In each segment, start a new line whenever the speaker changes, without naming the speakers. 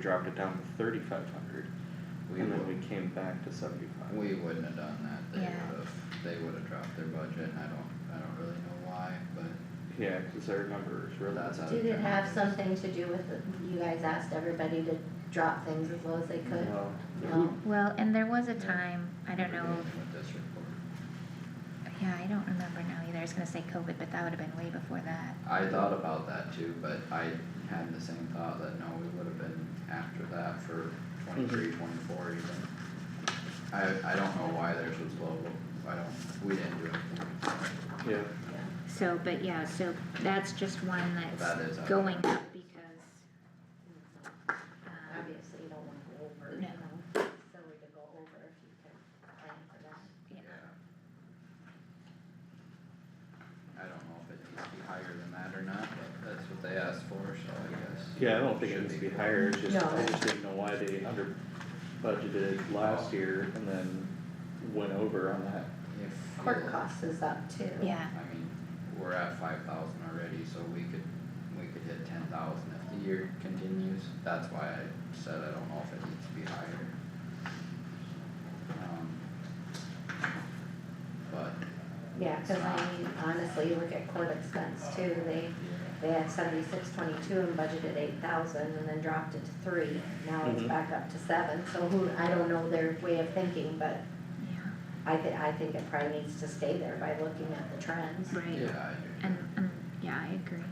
dropped it down to thirty-five hundred,
We
and then
would-
we came back to seventy-five.
We wouldn't have done that, they
Yeah.
would've, they would've dropped their budget, I don't, I don't really know why, but
Yeah, cause our numbers were
that's how.
Did it
turned
have
out.
something to do with, the- you guys asked everybody to drop things as low as they could?
No.
No?
Well, and there was a
Yeah.
time, I don't know,
Remember With this report,
if- yeah, I don't remember now either, I was gonna say COVID, but that would've been way before that.
I thought about that too, but I had the same thought that no, we would've been after that for twenty-three,
Mm-hmm.
twenty-four even. I, I don't know why theirs was low, I don't, we didn't do anything,
Yeah,
So, but yeah, so that's just one
That is
that's
up.
going up because. um,
Obviously, you don't wanna go over, you
No.
know, it's silly to go over if you can plan for that.
yeah.
yeah. I don't know if it needs to be higher than that or not, but that's what they asked for, so I guess.
yeah, I don't think it
Should
needs to be
be.
higher, it's just, I
No.
just didn't know why they under budgeted last year and then went over on that.
If
Court
you-
costs is up too.
Yeah,
I mean, we're at five thousand already, so we could, we could hit ten thousand if the year continues, that's why I said I don't know if it needs to be higher. Um, But,
Yeah, cause I mean, honestly, you look at court expense too, they, they had seventy-six twenty-two and budgeted eight thousand and then dropped it to three. Now it's
Mhm.
back up to seven, so who, I don't know their way of thinking, but
yeah,
I thi- I think it probably needs to stay there by looking at the trends.
right,
yeah, I do,
and, and, yeah, I agree.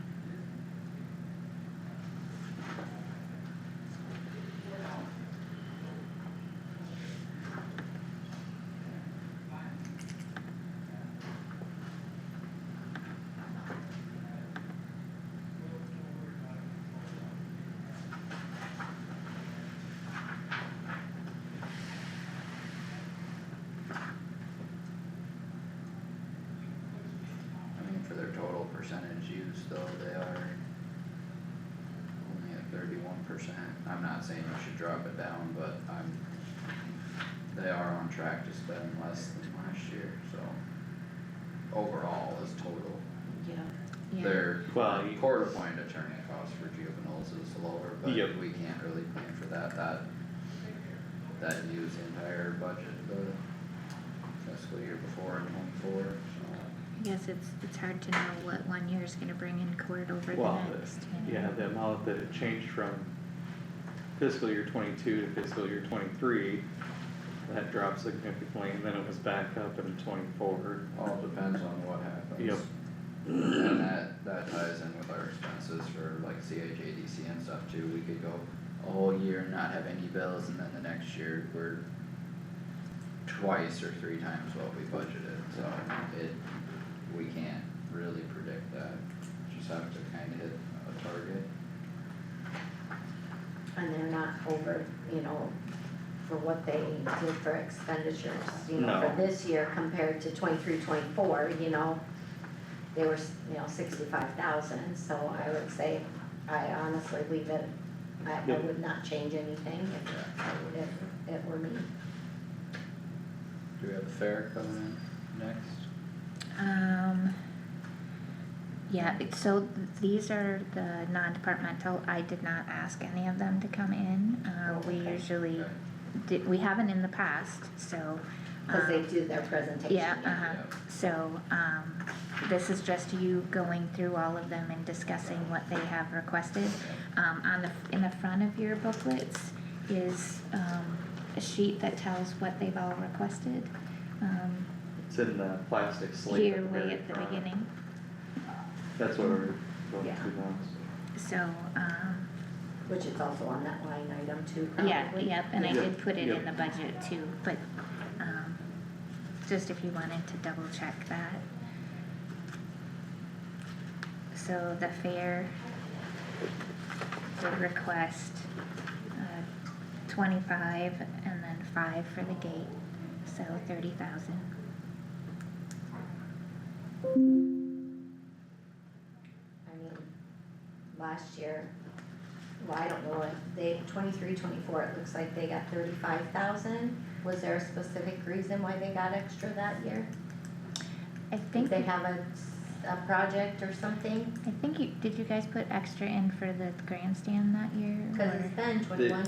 I mean, for their total percentage used though, they are only at thirty-one percent, I'm not saying you should drop it down, but I'm, they are on track to spend less than last year, so. Overall is total.
Yeah,
Yeah.
Their
Well, you-
court appointed attorney cost for juveniles is lower, but
Yep.
we can't really plan for that, that. That used the entire budget the fiscal year before in twenty-four, so.
I guess it's, it's hard to know what one year is gonna bring in court over the
Well, the-
next, you know?
Yeah, the amount that it changed from fiscal year twenty-two to fiscal year twenty-three, that dropped significantly, and then it was back up in twenty-four.
All depends on what happens.
Yep.
And that, that ties in with our expenses for like CHADC and stuff too, we could go a whole year and not have any bills and then the next year we're twice or three times what we budgeted, so it, we can't really predict that, just have to kinda hit a target.
and they're not over, you know, for what they did for expenditures, you know,
No.
for this year compared to twenty-three, twenty-four, you know. They were, s- you know, sixty-five thousand, so I would say, I honestly leave it, I, I
Yep.
would not change anything
Yeah, I
if,
would.
if it were me.
Do we have the fair coming in next?
Um, yeah, it- so th- these are the non-departmental, I did not ask any of them to come in, uh,
Oh,
we
okay.
usually,
Okay.
did, we haven't in the past, so.
Cause they
um,
do their presentation.
Yeah,
yeah.
uh-huh, so, um, this is just you going through all of them and discussing what they have requested. Um, on the, in the front of your booklets is, um, a sheet that tells what they've all requested, um,
It's in the plastic slate
here
at the
way
very
at the
front.
beginning.
That's what we're going
Yeah.
to now, so.
So, um,
Which is also on that line item too, probably.
yeah, yep, and I
Yeah.
did put it in
Yeah.
the budget too, but, um, just if you wanted to double check that. So the fair did request, uh, twenty-five and then five for the gate, so thirty thousand.
I mean, last year, well, I don't know, if they, twenty-three, twenty-four, it looks like they got thirty-five thousand. Was there a specific reason why they got extra that year?
I
Did
think,
they have a a project or something?
I think you, did you guys put extra in for the grandstand that year?
Cause
or-
it's been twenty-one,